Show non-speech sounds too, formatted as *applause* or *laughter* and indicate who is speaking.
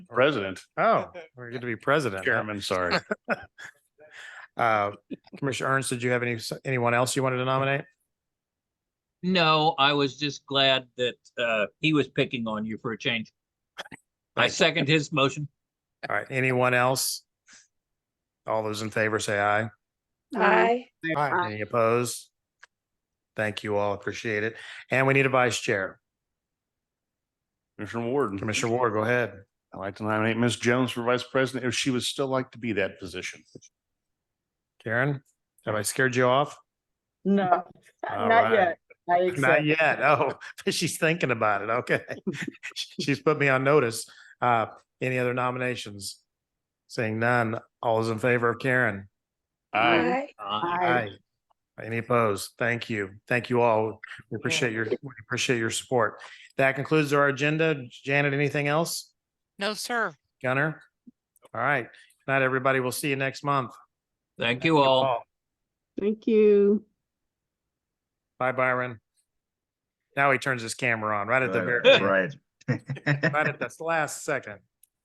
Speaker 1: President,
Speaker 2: Oh, we're good to be president. huh?
Speaker 1: chairman, *laughs* sorry.
Speaker 2: Uh, Commissioner Ernst, did you have any, anyone else you wanted to nominate?
Speaker 3: No, I was just glad that uh he was picking on you for a change. I
Speaker 2: Thank you.
Speaker 3: second his motion.
Speaker 2: All right, anyone else? All those in favor say aye.
Speaker 4: Aye.
Speaker 2: Any opposed? Thank you all. Appreciate it. And we need a vice chair.
Speaker 1: Commissioner Warden.
Speaker 2: Commissioner Ward, go ahead.
Speaker 1: I'd like to nominate Ms. Jones for vice president if she would still like to be that position.
Speaker 2: Karen, have I scared you off?
Speaker 5: No,
Speaker 2: All
Speaker 5: not
Speaker 2: right.
Speaker 5: yet. I
Speaker 2: Not
Speaker 5: accept.
Speaker 2: yet. Oh, *laughs* she's thinking about it. Okay. *laughs* She's put me on notice. Uh, any other nominations? Seeing none, all those in favor of Karen?
Speaker 1: Aye.
Speaker 3: Uh,
Speaker 5: Aye.
Speaker 2: Any opposed? Thank you. Thank you all. We appreciate your, we appreciate your support. That concludes our agenda. Janet, anything else?
Speaker 6: No, sir.
Speaker 2: Gunner? All right. Good night, everybody. We'll see you next month.
Speaker 3: Thank you all.
Speaker 5: Thank you.
Speaker 2: Bye, Byron. Now he turns his camera on right at the very,
Speaker 7: Right.
Speaker 2: right at this last second.